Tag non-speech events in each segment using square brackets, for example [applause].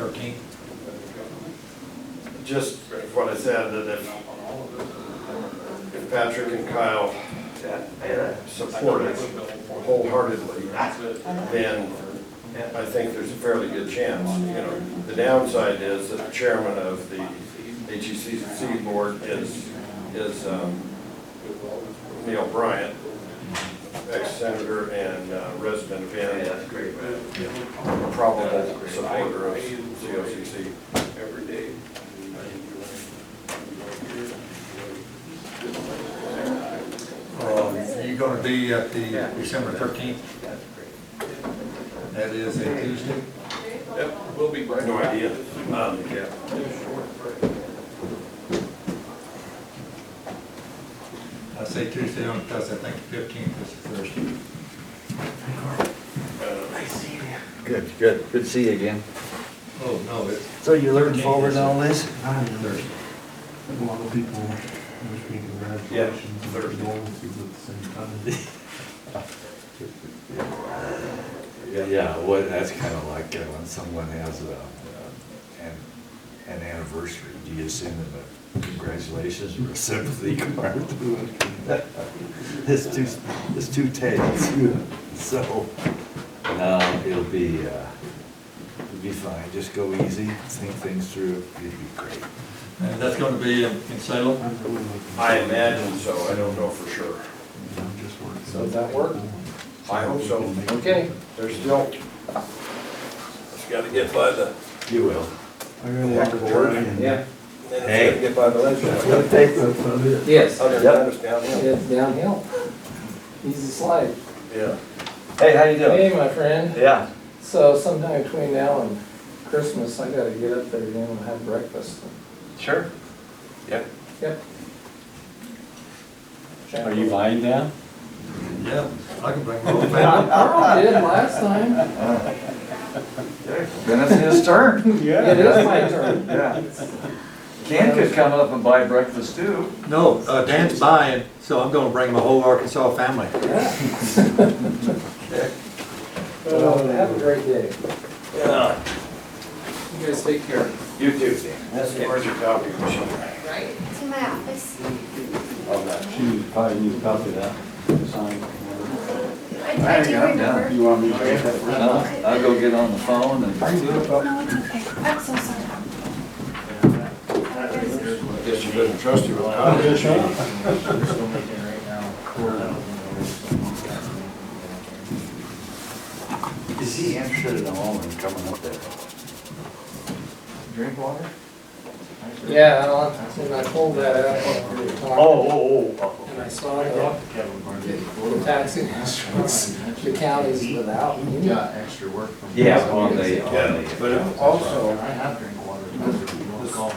Thirteenth. Just what I said, that if, if Patrick and Kyle support it wholeheartedly, then I think there's a fairly good chance, you know. The downside is that the chairman of the HECC board is, is um, Neil Bryant, ex-senator and uh, resident of Ann, great, probable supporter of COCC. every day. You Um, gonna be at the December thirteenth? That is a Tuesday? Yep, we'll be I right. have no idea. Um, I say Tuesday on, because I think fifteenth is the Thursday. Good, good, good to see you again. Oh, no, it's So you're looking forward to all this? I am. Thursday. A lot of people wish me congratulations and condolences at the same time. Yeah, well, that's kind of like uh, when someone has a, uh, an, an anniversary, do you send them a congratulations or a sympathy [laughs] card? It's two, it's two tails, [laughs] so, no, it'll be, uh, it'll be fine, just go easy, think things through, it'll be great. And that's gonna be in in Salem? I'm really looking- I imagine so, I don't know for sure. I'm just working. Does that work? I hope so. Okay. There's still, just gotta get by the, You will. I got a lot of driving. Yeah, Hey. get by [laughs] the legislature. It'll take yes, Other yep, than us down here. it's downhill. Easy slide. Yeah. Hey, how you doing? Hey, my friend, Yeah. so sometime between now and Christmas, I gotta get up there again and have breakfast. Sure. Yep. Are you buying now? Mm-hmm. Yeah, I can bring my whole I family. I did last time. Then it's his turn. It is my [laughs] turn. Yeah. Ken could come up and buy breakfast too. No, uh, Dan's buying, so I'm gonna bring my whole Arkansas family. Well, Have a great day. You guys take care. You too, Dan. That's the emergency copy machine. to my office. She probably needs a copy of that, signed. I I do remember. You want me to get that? Uh, I'll go get on the phone and, No, it's okay. I'm so sorry. Guess you couldn't trust you with copies. Is he interested at all in coming up there? drink water? Yeah, I'll- and I pulled that out when we were talking. Oh, oh, oh. And I saw that the taxing insurance, the county's without any. extra work from. Yeah, on the, on Yeah, the. uh, but also, I have drink water.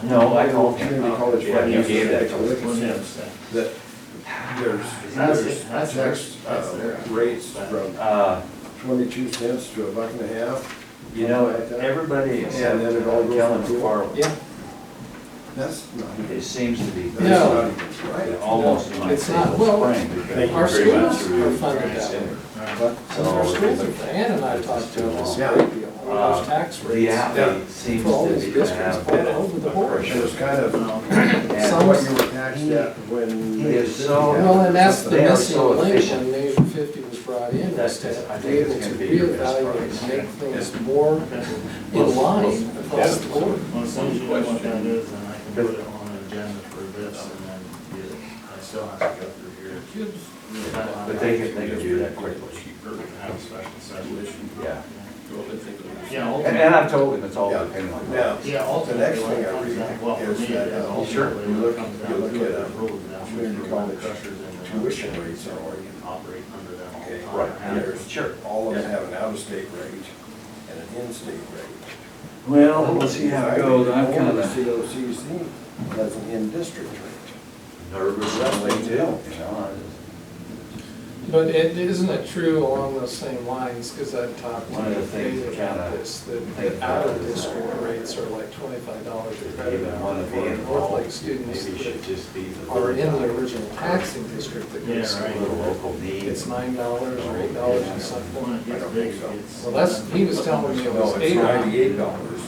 No, Oh, I called community him. college Yeah, friend you gave yesterday, that. actually, that there's, there's That's- tax that's uh, there. rates from Uh, twenty-two cents to a buck and a half. you know, everybody except uh, And then it all goes Kellen through. McFarland, Yeah, That's not, it seems to be that's No. not even they're right. almost in my It's not- favor well, spring. because our pretty much schools through are funded that way. December. So our schools are, Ann and I talked to this great deal, all those tax Uh, The rates. alley seems For all to these be districts have all over the a board. It was pressure. kind of And what you were taxed at when. He is so- Well, and that's the They are missing so link efficient. when Measure 50 was brought in, was That's- I to think be able it's to gonna be your best reevaluate price. and make things more in line across the board. Well, as soon as you know what that is, then I can put it on an agenda for this and then get it. I still have to go through here. But they can, they can do that quickly, Have a special session. yeah. Yeah, And, ultimately, and I've told them it's all Yeah. depending on Now, that. yeah, the ultimately, next what thing it I comes down, well, read for me, is it that is uh, ultimately you what it look, comes you down look to at the uh, rules now. community college tuition rates are all you can operate under that all Okay, the time. Right, And yeah, sure. all of them have an out-of-state rate and an in-state rate. Well, let's see how it goes, I'm Only kinda COCC has an in-district rate. nervous that way too, you know. But it, isn't it true along those same lines, because I've talked One to of the things David that about kinda- this, that the out-of-district rates are like twenty-five dollars or I better. Even want to be for North Lake involved, students maybe should that just be the. are in the original taxing district that goes Yeah, right. Little local need. It's nine dollars or eight dollars and something. When it gets big, it gets. Well, that's, he was telling me it was No, it's eight. or nine. ninety-eight dollars.